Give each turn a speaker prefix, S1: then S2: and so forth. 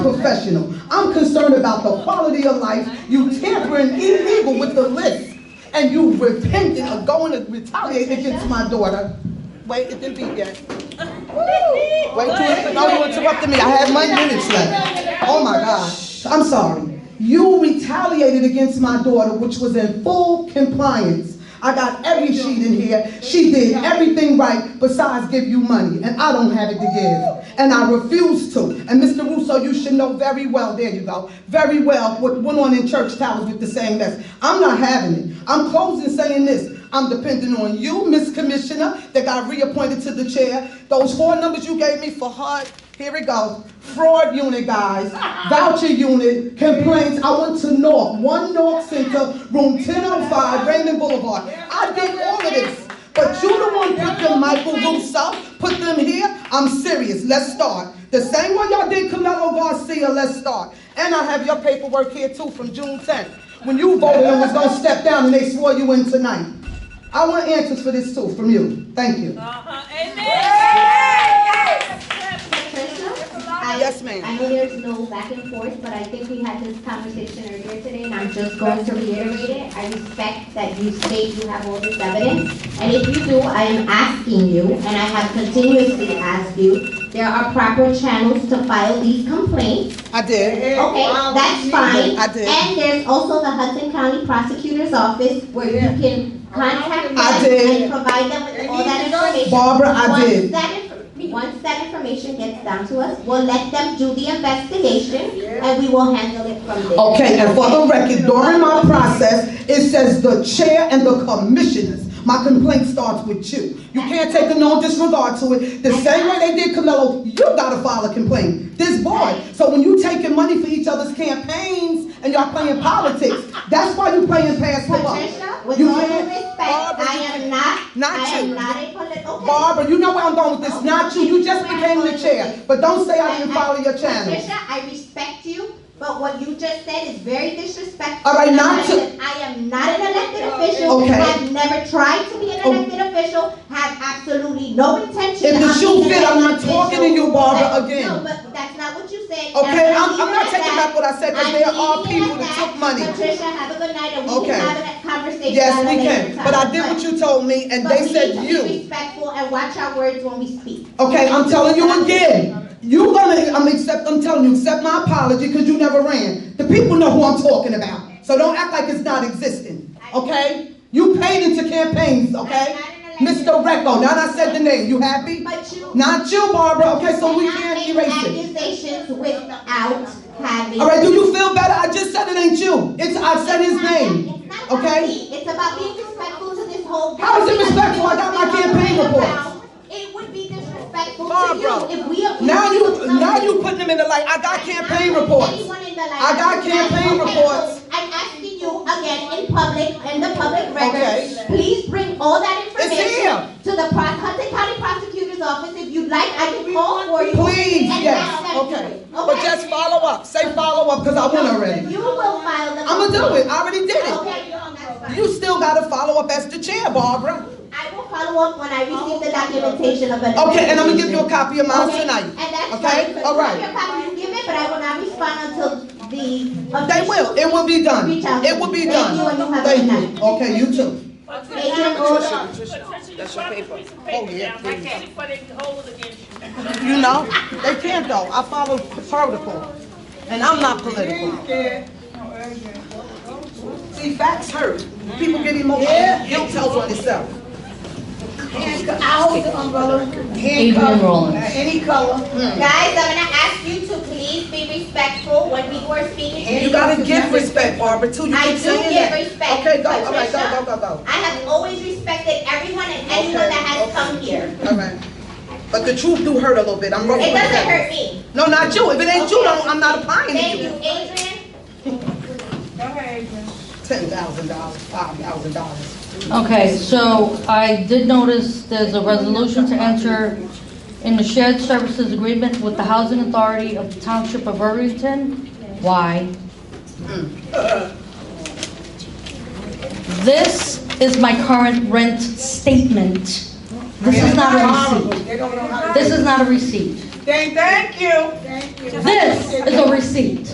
S1: professional. I'm concerned about the quality of life. You tampering illegal with the list, and you repenting of going to retaliate against my daughter. Wait, it didn't beat yet. Woo! Wait till it. No, you interrupted me. I had my minutes left. Oh my God. I'm sorry. You retaliated against my daughter, which was in full compliance. I got every sheet in here. She did everything right besides give you money, and I don't have it to give. And I refuse to. And Mr. Russo, you should know very well, there you go, very well what went on in church towers with the same mess. I'm not having it. I'm closing saying this. I'm depending on you, Miss Commissioner, that got reappointed to the chair. Those four numbers you gave me for HUD, here it goes. Fraud unit, guys. Voucher unit, complaints. I went to North, one North Center, room 1005, Raymond Boulevard. I did all of this. But you the one put them Michael Russo, put them here. I'm serious. Let's start. The same way y'all did Camelo Garcia, let's start. And I have your paperwork here too from June 10th. When you voted and was gonna step down and they swore you in tonight. I want answers for this too from you. Thank you.
S2: Uh-huh. Amen.
S3: I-
S1: Yes, ma'am.
S3: I know there's no back and forth, but I think we had this conversation earlier today, and I'm just going to reiterate it. I respect that you state you have all this evidence, and if you do, I am asking you, and I have continuously asked you, there are proper channels to file these complaints.
S1: I did.
S3: Okay, that's fine.
S1: I did.
S3: And there's also the Hudson County Prosecutor's Office where you can contact them
S1: I did.
S3: and provide them with all that information.
S1: Barbara, I
S3: Once
S1: did.
S3: that inf- Once that information gets down to us, we'll let them do the investigation and we will handle it from there.
S1: Okay, and for the record, during my process, it says the chair and the commissioners. My complaint starts with you. You can't take a no disregard to it. The same way they did Camelo, you gotta file a complaint. This board. So when you taking money for each other's campaigns and y'all playing politics, that's why you playing past the buck.
S3: Patricia, with
S1: You
S3: all due
S1: can't-
S3: respect,
S1: Barbara,
S3: I
S1: you
S3: am
S1: can't-
S3: not,
S1: Not
S3: I am
S1: you.
S3: not a political. okay.
S1: Barbara, you know where I'm going with this. Not you. You just became the chair. But don't say I didn't follow your channel.
S3: Patricia, I respect you, but what you just said is very disrespectful.
S1: All right, not
S3: I
S1: to-
S3: am- I am not an elected official,
S1: Okay.
S3: have never tried to be an
S1: Oh.
S3: elected official, have absolutely no intention
S1: If the
S3: of
S1: shoe
S3: being an
S1: fit, I'm not
S3: elected
S1: talking to
S3: official.
S1: you, Barbara,
S3: But- No,
S1: again.
S3: but that's not what you said.
S1: Okay,
S3: And
S1: I'm, I'm not
S3: leaving it
S1: taking
S3: at
S1: back what I said, because
S3: I'm
S1: there are
S3: leaving it
S1: people
S3: at
S1: that took money.
S3: Patricia, have a good night, and we
S1: Okay.
S3: can have a conversation
S1: Yes,
S3: at a
S1: we
S3: later
S1: can, but
S3: time.
S1: I did what you told me, and
S3: But
S1: they
S3: we
S1: said
S3: need to Be
S1: you.
S3: respectful and watch our words when we speak.
S1: Okay, I'm telling you again, you gonna, I'm accept, I'm telling you, accept my apology, because you never ran. The people know who I'm talking about, so don't act like it's not existing, okay? You paid into campaigns, okay? Mr. Recko, now that I said the name, you happy?
S3: But you.
S1: Not you, Barbara, okay, so we can't erase
S3: Cannot
S1: it.
S3: make accusations without having.
S1: All right, do you feel better? I just said it ain't you. It's, I said his
S3: It's not-
S1: name,
S3: it's not about
S1: okay?
S3: me. It's about being respectful to this whole.
S1: How is it respectful? I got my
S3: Because if
S1: campaign
S3: we were
S1: reports.
S3: around, It would be disrespectful to
S1: Barbara,
S3: you if we. abused
S1: Now you,
S3: somebody.
S1: now you putting them in the light. I got campaign reports.
S3: Anyone in the line.
S1: I got campaign
S3: Okay,
S1: reports.
S3: so I'm asking you again in public, in the public record,
S1: Okay.
S3: please bring all that
S1: here.
S3: information to the Pro- Hudson County Prosecutor's Office. If you'd like, I can call for you.
S1: Please,
S3: and ask
S1: yes,
S3: them to do
S1: okay.
S3: it.
S1: But just follow up. Say follow up, because I won already.
S3: You will file the.
S1: I'ma do it. I already did it.
S3: Okay, that's fine.
S1: You still gotta follow up as the chair, Barbara.
S3: I will follow up when I receive the documentation of an.
S1: Okay, and I'm gonna give you a copy
S3: investigation.
S1: of mine
S3: Okay,
S1: tonight.
S3: And that's fine.
S1: Okay, all
S3: If you
S1: right.
S3: have your copy, you give it, but I will not respond until the.
S1: They will. It will be done. It will be done. Thank you. Okay, you too.
S3: Agent Oda.
S2: Patricia, you brought this piece of paper down right there before they hold it against you.
S1: You know, they can't though. I follow protocol, and I'm not political. See, facts hurt. People get emotional. Guilt tells on itself.
S4: I hold the umbrella,
S5: Adrian
S4: handcuffed,
S5: Rollins.
S4: any
S1: Hmm.
S4: color.
S3: Guys, I'm gonna ask you to please be respectful when people are speaking.
S1: You gotta give respect, Barbara, too. You
S3: I
S1: keep
S3: do
S1: saying
S3: give
S1: that.
S3: respect,
S1: Okay, go, all right, go,
S3: Patricia.
S1: go, go,
S3: I have always respected everyone and anyone that has come here.
S1: go. All right. But the truth do hurt a little bit. I'm rolling.
S3: It
S1: with
S3: doesn't
S1: that.
S3: hurt me.
S1: No, not you. If it ain't you, don't, I'm not applying
S3: Thank
S1: to
S3: you,
S1: you.
S3: Adrian.
S1: Ten thousand dollars, five thousand dollars.
S5: Okay, so I did notice there's a resolution to enter in the shared services agreement with the Housing Authority of the Township of Irvington. Why? This is my current rent statement. This is not a receipt.
S4: They don't know how to.
S5: This is not a receipt.
S2: Thank, thank you.
S4: Thank you.
S5: This is a